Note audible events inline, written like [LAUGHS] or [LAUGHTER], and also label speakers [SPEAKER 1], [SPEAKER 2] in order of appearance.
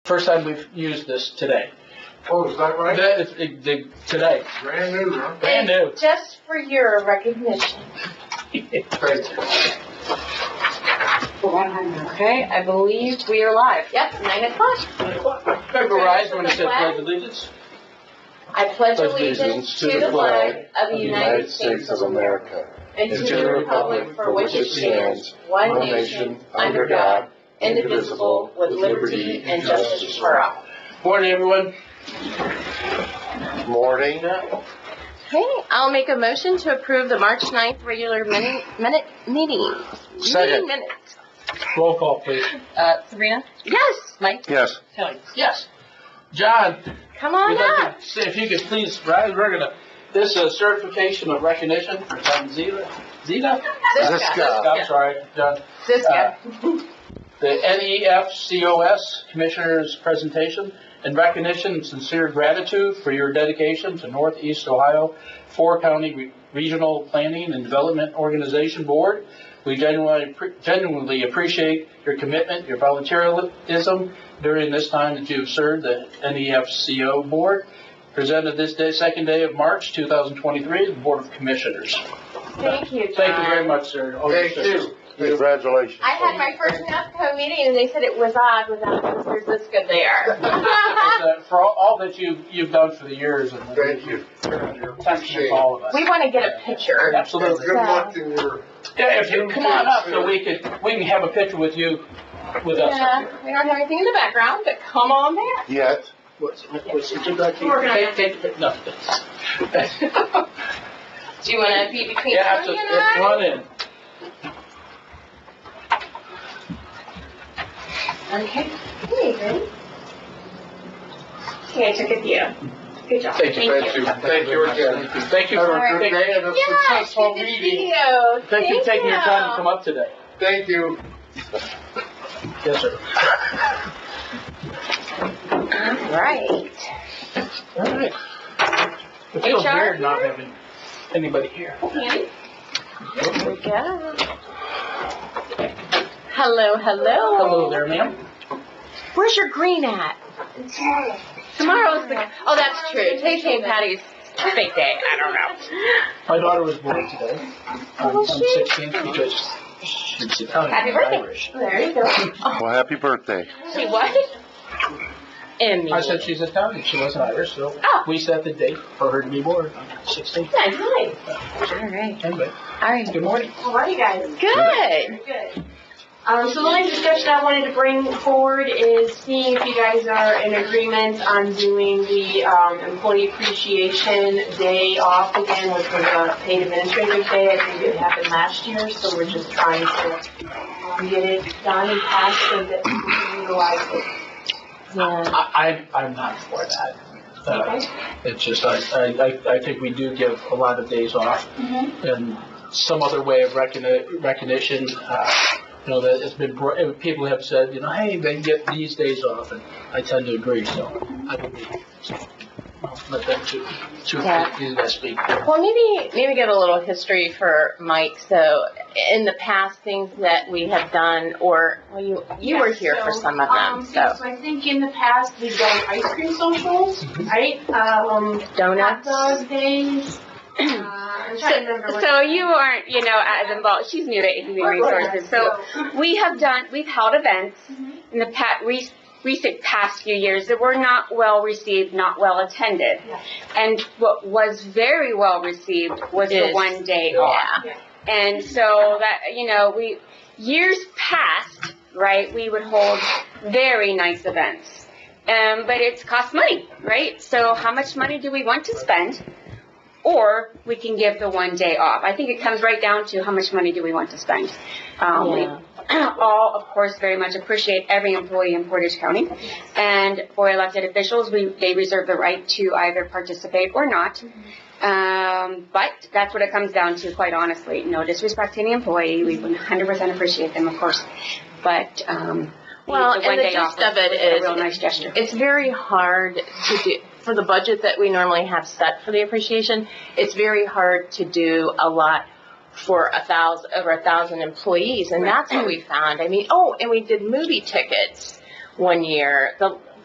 [SPEAKER 1] First time we've used this today.
[SPEAKER 2] Oh, is that right?
[SPEAKER 1] That is- it- the- today.
[SPEAKER 2] Brand new, huh?
[SPEAKER 1] Brand new.
[SPEAKER 3] Just for your recognition.
[SPEAKER 4] Okay, I believe we are live.
[SPEAKER 3] Yep, nine o'clock.
[SPEAKER 1] Remember Rise when it said pledge allegiance?
[SPEAKER 3] I pledge allegiance to the flag of
[SPEAKER 5] of
[SPEAKER 3] the United States of America and to the republic for which it stands, one nation, under God, indivisible, with liberty and justice for all.
[SPEAKER 1] Morning, everyone.
[SPEAKER 5] Morning.
[SPEAKER 3] Okay, I'll make a motion to approve the March 9th regular minute, minute meeting.
[SPEAKER 5] Second.
[SPEAKER 3] Meeting minutes.
[SPEAKER 1] Roll call, please.
[SPEAKER 4] Uh, Sabrina?
[SPEAKER 3] Yes,
[SPEAKER 4] Mike?
[SPEAKER 5] Yes.
[SPEAKER 4] Kelly?
[SPEAKER 1] Yes. John,
[SPEAKER 3] come on
[SPEAKER 1] we'd like
[SPEAKER 3] up.
[SPEAKER 1] to see if you could please rise. We're gonna, this uh, certification of recognition for John Zeta. Zeta?
[SPEAKER 5] This guy.
[SPEAKER 1] I'm sorry, John.
[SPEAKER 3] Uh,
[SPEAKER 4] Ziska.
[SPEAKER 1] [LAUGHS] the E NEFCOS Commissioner's presentation. In recognition and sincere gratitude for your dedication to Northeast Ohio Four County Re- Regional Planning and Development Organization Board, we genuinely, appre- genuinely appreciate your commitment, your volunteerism during this time that you've served the E NEFCO Board. Presented this day, second day of March 2023, the Board of Commissioners.
[SPEAKER 3] Thank you, John.
[SPEAKER 1] Thank you very much, sir. All your
[SPEAKER 2] Thank you.
[SPEAKER 5] Congratulations.
[SPEAKER 3] I had my first NAFCO meeting and they said it was odd without Mr. Ziska there. [LAUGHS]
[SPEAKER 1] It's, uh, For all- all that you've, you've done for the years and the
[SPEAKER 2] Thank you.
[SPEAKER 1] attention of all of us.
[SPEAKER 3] We want to get a picture.
[SPEAKER 2] And
[SPEAKER 1] Absolutely.
[SPEAKER 2] good luck in your,
[SPEAKER 1] Yeah, if you, come on up so we could, we can have a picture with you, with us up
[SPEAKER 3] Yeah,
[SPEAKER 1] here.
[SPEAKER 3] we don't have anything in the background, but come on back.
[SPEAKER 5] Yet.
[SPEAKER 1] What's, what's, good luck.
[SPEAKER 3] We're gonna-
[SPEAKER 1] Take, take, the pic- no.
[SPEAKER 3] Do you want to be between
[SPEAKER 1] Yeah, have
[SPEAKER 3] Tony
[SPEAKER 1] to,
[SPEAKER 3] and I?
[SPEAKER 1] run in.
[SPEAKER 3] Okay. There you go. Okay, I took a view. Good job.
[SPEAKER 1] Thank you.
[SPEAKER 3] Thank you.
[SPEAKER 2] thank you again.
[SPEAKER 1] Thank you for,
[SPEAKER 2] Have a good
[SPEAKER 1] thank
[SPEAKER 2] day and a
[SPEAKER 3] Yeah, it's
[SPEAKER 2] successful
[SPEAKER 3] good to see
[SPEAKER 2] meeting.
[SPEAKER 3] you.
[SPEAKER 1] thank you for taking your time to come up today.
[SPEAKER 2] Thank you.
[SPEAKER 1] Yes, sir.
[SPEAKER 3] All right.
[SPEAKER 1] All right. It feels
[SPEAKER 3] HR
[SPEAKER 1] weird not
[SPEAKER 3] here?
[SPEAKER 1] having anybody here.
[SPEAKER 3] Andy? Here we go. Hello, hello.
[SPEAKER 1] Hello there, ma'am.
[SPEAKER 3] Where's your green at? Tomorrow's the. Oh, that's true. Today's St. Patty's fake day. I don't know.
[SPEAKER 1] My daughter was born today, on on
[SPEAKER 3] was Oh, she?
[SPEAKER 1] 16th, because she's Italian
[SPEAKER 3] Happy
[SPEAKER 1] and
[SPEAKER 3] birthday.
[SPEAKER 1] Irish.
[SPEAKER 3] There you go.
[SPEAKER 5] Well, happy birthday.
[SPEAKER 3] She what? Emmy.
[SPEAKER 1] I said she's Italian, she wasn't Irish, so
[SPEAKER 3] Oh.
[SPEAKER 1] we set the date for her to be born on 16th.
[SPEAKER 3] Nice, nice.
[SPEAKER 4] All right.
[SPEAKER 1] Anyway,
[SPEAKER 4] All right.
[SPEAKER 1] good morning.
[SPEAKER 6] How are you guys?
[SPEAKER 4] Good.
[SPEAKER 6] Good. Um, so the only discussion I wanted to bring forward is seeing if you guys are in agreement on doing the, um, employee appreciation day off again, which was a paid administrative day. I think it happened last year, so we're just trying to, um, get it done and passed so that we can utilize it.
[SPEAKER 3] Yeah.
[SPEAKER 1] I, I- I'm not for that. Uh, It's just, I, I, I- I think we do give a lot of days off. And some other way of recogni- recognition, uh, you know, that it's been, br- uh, people have said, you know, hey, they get these days off, and I tend to agree, so I don't think- I'll let them to,
[SPEAKER 4] Yeah.
[SPEAKER 1] to, do that speak.
[SPEAKER 3] Well, maybe maybe get a little history for Mike. So, in the past, things that we have done, or well, you you were
[SPEAKER 6] Yes,
[SPEAKER 3] here for
[SPEAKER 6] so,
[SPEAKER 3] some of
[SPEAKER 6] um,
[SPEAKER 3] them. So,
[SPEAKER 6] I think in the past, we've done ice cream socials, right? Um, hot
[SPEAKER 3] donuts.
[SPEAKER 4] [CLEARS THROAT]
[SPEAKER 6] dog days. Uh, I'm
[SPEAKER 7] So,
[SPEAKER 6] trying to remember what.
[SPEAKER 7] so you aren't, you know, as involved. She's new to Human Resources. So we have done, we've held events
[SPEAKER 3] Mm-hmm.
[SPEAKER 7] in the pat, re, recent past few years that were not well received, not well attended.
[SPEAKER 6] Yeah.
[SPEAKER 7] And what was very well received was the
[SPEAKER 3] Is-
[SPEAKER 7] one day off.
[SPEAKER 3] Yeah.
[SPEAKER 7] And so that, you know, we, years past, right, we would hold very nice events. Um, but it's cost money, right? So how much money do we want to spend? Or we can give the one day off. I think it comes right down to how much money do we want to spend. Um, we
[SPEAKER 3] Yeah.
[SPEAKER 7] [CLEARS THROAT] all, of course, very much appreciate every employee in Portage County. And for elected officials, we, they reserve the right to either participate or not. Um, but that's what it comes down to, quite honestly. No disrespect to any employee. We 100% appreciate them, of course. But, um,
[SPEAKER 3] Well,
[SPEAKER 7] the
[SPEAKER 3] and
[SPEAKER 7] one
[SPEAKER 3] the
[SPEAKER 7] day off
[SPEAKER 3] gist of
[SPEAKER 7] was-
[SPEAKER 3] it
[SPEAKER 7] was a
[SPEAKER 3] is-
[SPEAKER 7] real nice gesture.
[SPEAKER 3] It's very hard to do, for the budget that we normally have set for the appreciation, it's very hard to do a lot for a thousand, over a thousand employees, and that's what we found. I mean, oh, and we did movie tickets one year, the,